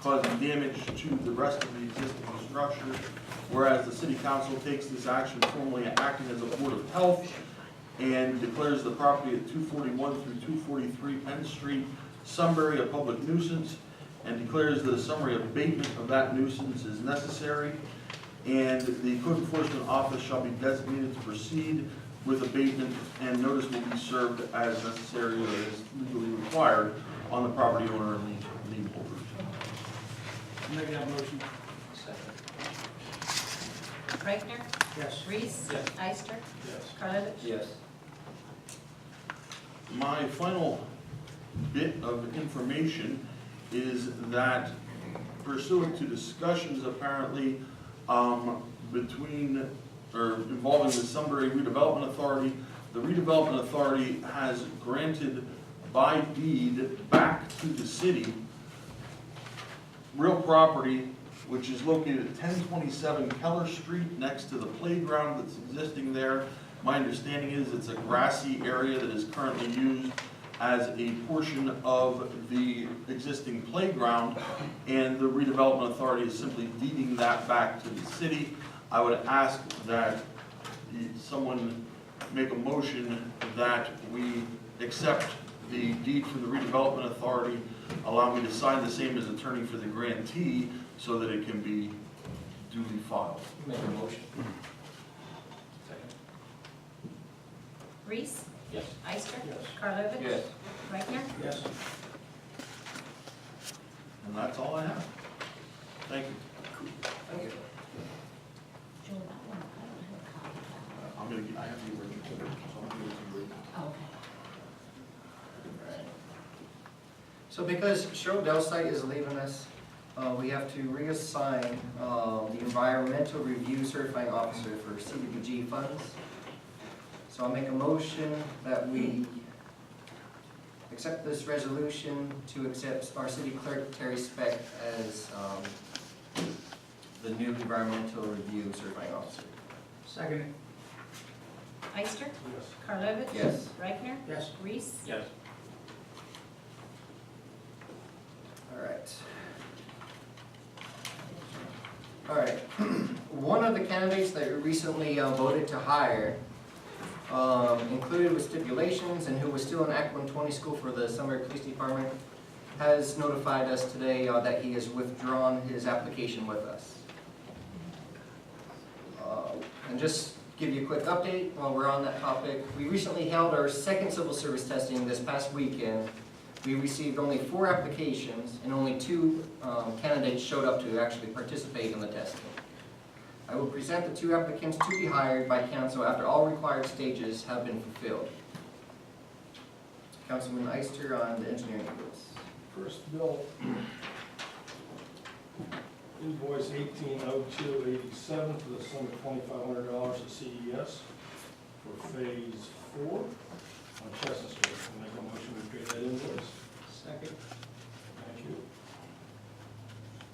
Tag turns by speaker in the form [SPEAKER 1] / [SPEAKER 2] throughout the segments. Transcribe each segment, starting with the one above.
[SPEAKER 1] causing damage to the rest of the existing structure. Whereas the city council takes this action formally acting as a board of health and declares the property at two forty-one through two forty-three Penn Street, Sunbury, a public nuisance, and declares that a summary abatement of that nuisance is necessary. And the code enforcement office shall be designated to proceed with abatement, and notice will be served as necessary or as legally required on the property owner and lien- lien holder.
[SPEAKER 2] Make that motion.
[SPEAKER 3] Reichtner,
[SPEAKER 2] Yes.
[SPEAKER 3] Reese.
[SPEAKER 2] Yes.
[SPEAKER 3] Ister,
[SPEAKER 2] Yes.
[SPEAKER 3] Karlovic.
[SPEAKER 4] Yes.
[SPEAKER 1] My final bit of information is that pursuant to discussions apparently um, between, or involving the Sunbury Redevelopment Authority, the redevelopment authority has granted by deed back to the city real property, which is located at ten twenty-seven Keller Street, next to the playground that's existing there. My understanding is it's a grassy area that is currently used as a portion of the existing playground, and the redevelopment authority is simply deeding that back to the city. I would ask that the- someone make a motion that we accept the deed from the redevelopment authority allow me to sign the same as attorney for the grantee so that it can be duly filed.
[SPEAKER 4] Make a motion. Second.
[SPEAKER 3] Reese,
[SPEAKER 4] Yes.
[SPEAKER 3] Ister,
[SPEAKER 2] Yes.
[SPEAKER 3] Karlovic.
[SPEAKER 4] Yes.
[SPEAKER 3] Reichtner,
[SPEAKER 2] Yes.
[SPEAKER 1] And that's all I have. Thank you.
[SPEAKER 4] Thank you.
[SPEAKER 3] Joel, that one, I
[SPEAKER 1] Uh, I'm gonna, get- I have the original, so I'm gonna give it to you.
[SPEAKER 3] don't have a copy. Oh, Okay.
[SPEAKER 5] So because Cheryl Delsite is leaving us, uh, we have to reassign uh, the environmental review certifying officer for CDBG funds. So I'll make a motion that we accept this resolution to accept our city clerk Terry Speck as um, the new environmental review certifying officer.
[SPEAKER 2] Second.
[SPEAKER 3] Ister,
[SPEAKER 2] Yes.
[SPEAKER 3] Karlovic.
[SPEAKER 5] Yes.
[SPEAKER 3] Reichtner,
[SPEAKER 2] Yes.
[SPEAKER 3] Reese,
[SPEAKER 4] Yes.
[SPEAKER 5] All right. All right, one of the candidates that we recently uh, voted to hire, um, included with stipulations and who was still in Act 120 school for the Sunbury Police Department, has notified us today uh, that he has withdrawn his application with us. Uh, And just give you a quick update while we're on that topic, we recently held our second civil service testing this past weekend, we received only four applications, and only two um, candidates showed up to actually participate in the testing. I will present the two applicants to be hired by council after all required stages have been fulfilled. Councilman Ister on the engineering bills.
[SPEAKER 6] First bill, invoice eighteen oh two eighty-seven for the sum of twenty-five hundred dollars to CES for phase four on Chestnut Street. I Make a motion to create that invoice.
[SPEAKER 2] Second.
[SPEAKER 6] Thank you.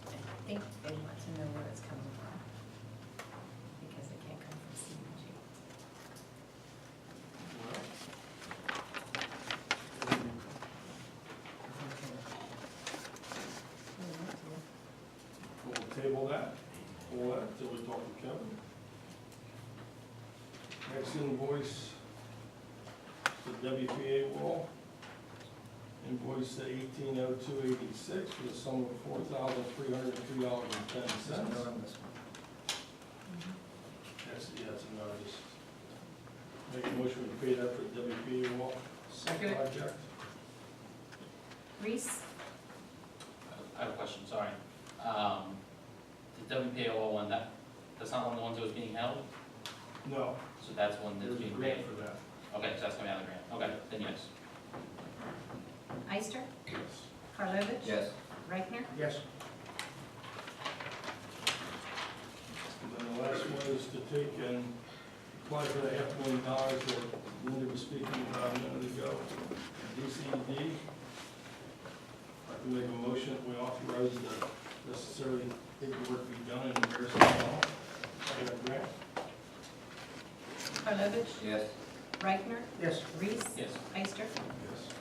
[SPEAKER 3] I think they want to know where it's coming from. Because it can't come from CDBG.
[SPEAKER 6] We'll table that, hold that until we talk to Kevin. Next invoice, the WPA wall. Invoice to eighteen oh two eighty-six for the sum of four thousand three hundred and three dollars and ten
[SPEAKER 5] There's a
[SPEAKER 6] cents.
[SPEAKER 5] note on this one.
[SPEAKER 6] That's, yeah, that's a notice. Make a motion to pay that for the WPA wall
[SPEAKER 2] Second.
[SPEAKER 6] project.
[SPEAKER 3] Reese,
[SPEAKER 4] I have a question, sorry. Um, the WPAO one, that, that's not one of the ones that was being held,
[SPEAKER 6] No,
[SPEAKER 4] so that's one that's
[SPEAKER 6] there's a
[SPEAKER 4] being
[SPEAKER 6] grant
[SPEAKER 4] paid?
[SPEAKER 6] for that.
[SPEAKER 4] Okay, so that's coming out of the grant, okay, then yes.
[SPEAKER 3] Ister,
[SPEAKER 6] Yes.
[SPEAKER 3] Karlovic.
[SPEAKER 5] Yes.
[SPEAKER 3] Reichtner,
[SPEAKER 2] Yes.
[SPEAKER 6] And then the last one is to take and apply for the half million dollars that Linda was speaking about a minute ago, DCD. I can make a motion that we authorize the necessary paperwork to be done in Harrison Hall. I got a grant.
[SPEAKER 3] Karlovic,
[SPEAKER 5] Yes.
[SPEAKER 3] Reichtner,
[SPEAKER 2] Yes.
[SPEAKER 3] Reese,
[SPEAKER 4] Yes.
[SPEAKER 3] Ister,
[SPEAKER 6] Yes.